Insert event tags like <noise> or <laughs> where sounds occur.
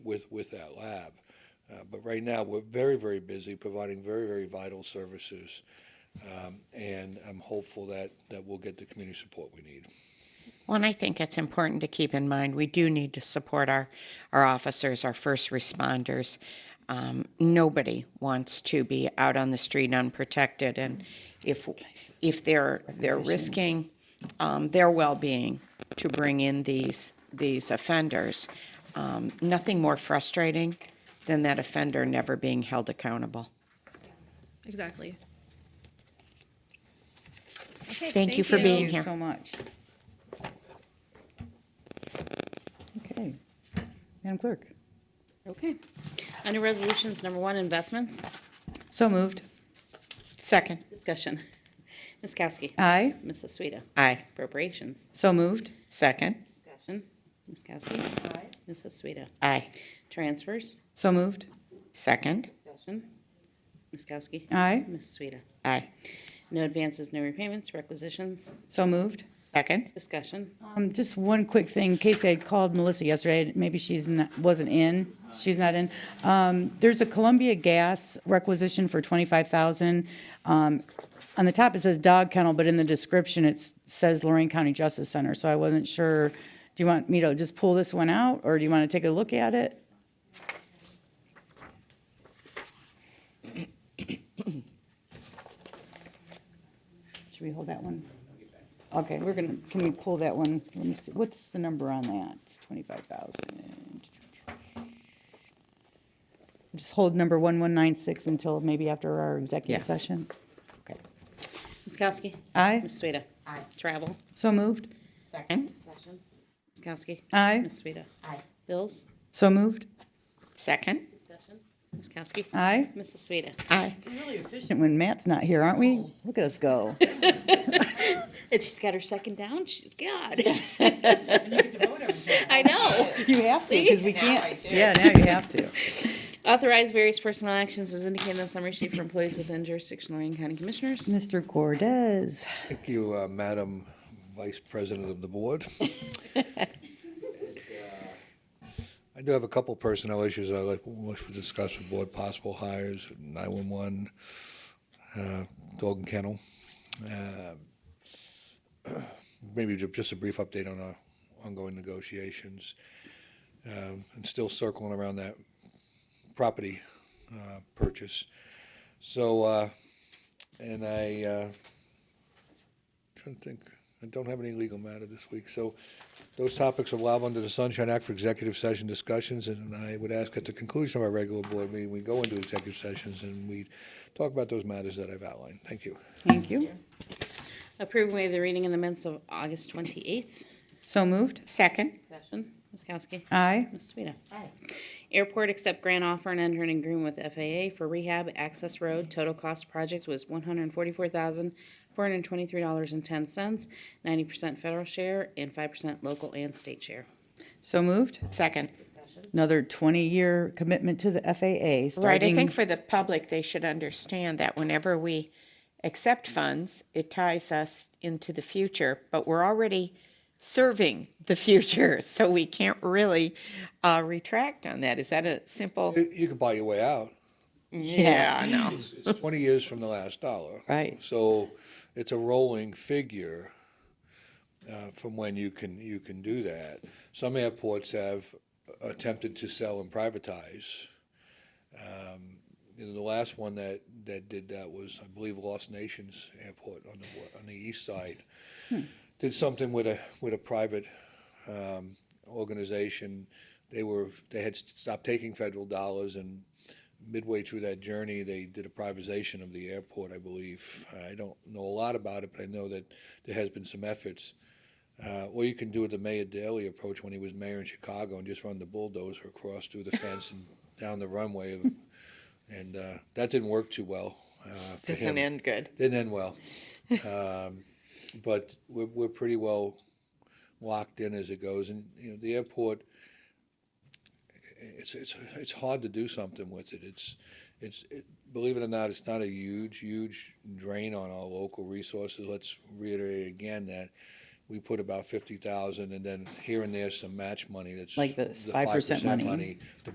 with, with that lab. Uh, But right now, we're very, very busy providing very, very vital services. Um, And I'm hopeful that, that we'll get the community support we need. Well, and I think it's important to keep in mind we do need to support our, our officers, our first responders. Um, nobody wants to be out on the street unprotected, and if if they're they're risking um, their well-being to bring in these these offenders, um, nothing more frustrating than that offender never being held accountable. Exactly. Thank, you for being here. so much. Okay. Madam Clerk? Okay. Under Resolutions Number One, Investments, So moved. Second, Discussion. Ms. Kowski. Aye. Mrs. Sueda. aye. Appropriations. So moved. Second, Discussion. Ms. Kowski. Aye. Mrs. Sueda. aye. Transfers. So moved. Second, Discussion. Ms. Kowski. Aye. Ms. Sueda. aye. No advances, no repayments, requisitions. So moved. Second, Discussion. Um, just one quick thing. Casey had called Melissa yesterday. Maybe she's not, wasn't in. She's not in. Um, there's a Columbia Gas requisition for twenty-five thousand. Um, on the top it says dog kennel, but in the description it s- says Lorraine County Justice Center. So I wasn't sure. Do you want me to just pull this one out, or do you want to take a look at it? <coughs> Should we hold that one? Okay, we're gonna, can we pull that one? Let me see, what's the number on that? It's twenty-five thousand. Just hold number one one nine six until maybe after our executive Yes. session? Okay. Ms. Kowski. Aye, Ms. Sueda. Aye. Travel. so moved. second, Discussion. Ms. Kowski. Aye, Ms. Sueda. Aye. Bills. so moved. second, Discussion. Ms. Kowski. Aye. Mrs. Sueda. aye. Efficient When Matt's not here, aren't we? Look at us go. And she's got her second down. She's <laughs> God. I know. <laughs> You have to, because we can't. Yeah, now you have <laughs> to. Authorize various personnel actions as indicated on the summary sheet for employees within jurisdiction of Lorraine County Commissioners. Mr. Cordez, Thank you, uh, Madam Vice President of the Board. uh, I do have a couple personnel issues I'd like, wish to discuss with board, possible hires, 911, uh, dog and kennel. Uh, <clears throat> Maybe ju- just a brief update on our ongoing negotiations. Um, And still circling around that property uh, purchase. So, uh, and I uh, Trying to think, I don't have any legal matter this week, so those topics are allowed under the Sunshine Act for executive session discussions, and I would ask at the conclusion of our regular board meeting, we go into executive sessions and we talk about those matters that I've outlined. Thank you. thank you. Approve way of the reading in the minutes of August twenty-eighth. So moved. Second, Discussion. Ms. Kowski. Aye, Ms. Sueda. Airport accept grant offer and enter an agreement with FAA for rehab access road. Total cost project was one hundred and forty-four thousand, four hundred and twenty-three dollars and ten cents, ninety percent federal share and five percent local and state share. so moved. second. Another twenty-year commitment to the FAA, starting. Right, I think for the public, they should understand that whenever we accept funds, it ties us into the future, but we're already serving the future, <laughs> so we can't really uh, retract on that. Is that a simple? You you can buy your way out. Yeah, I know. It's it's twenty years from the last dollar. Right. So it's a rolling figure uh, from when you can, you can do that. Some airports have attempted to sell and privatize. Um, You know, the last one that, that did that was, I believe, Lost Nations Airport on the, wa- on the east side. Did something with a, with a private um, organization. They were, they had stopped taking federal dollars and midway through that journey, they did a privatization of the airport, I believe. I don't know a lot about it, but I know that there has been some efforts. Uh, Or you can do the Mayor Daley approach when he was mayor in Chicago and just run the bulldozer across through the fence and down the runway of and uh, that didn't work too well. Uh, for him. Doesn't end good. Didn't end well. <laughs> um, but we're, we're pretty well locked in as it goes, and you know the airport. It's it's it's hard to do something with it. It's it's it, believe it or not, it's not a huge huge drain on our local resources. Let's reiterate again that. We put about fifty thousand, and then here and there some match money. That's Like this the 5% money. money to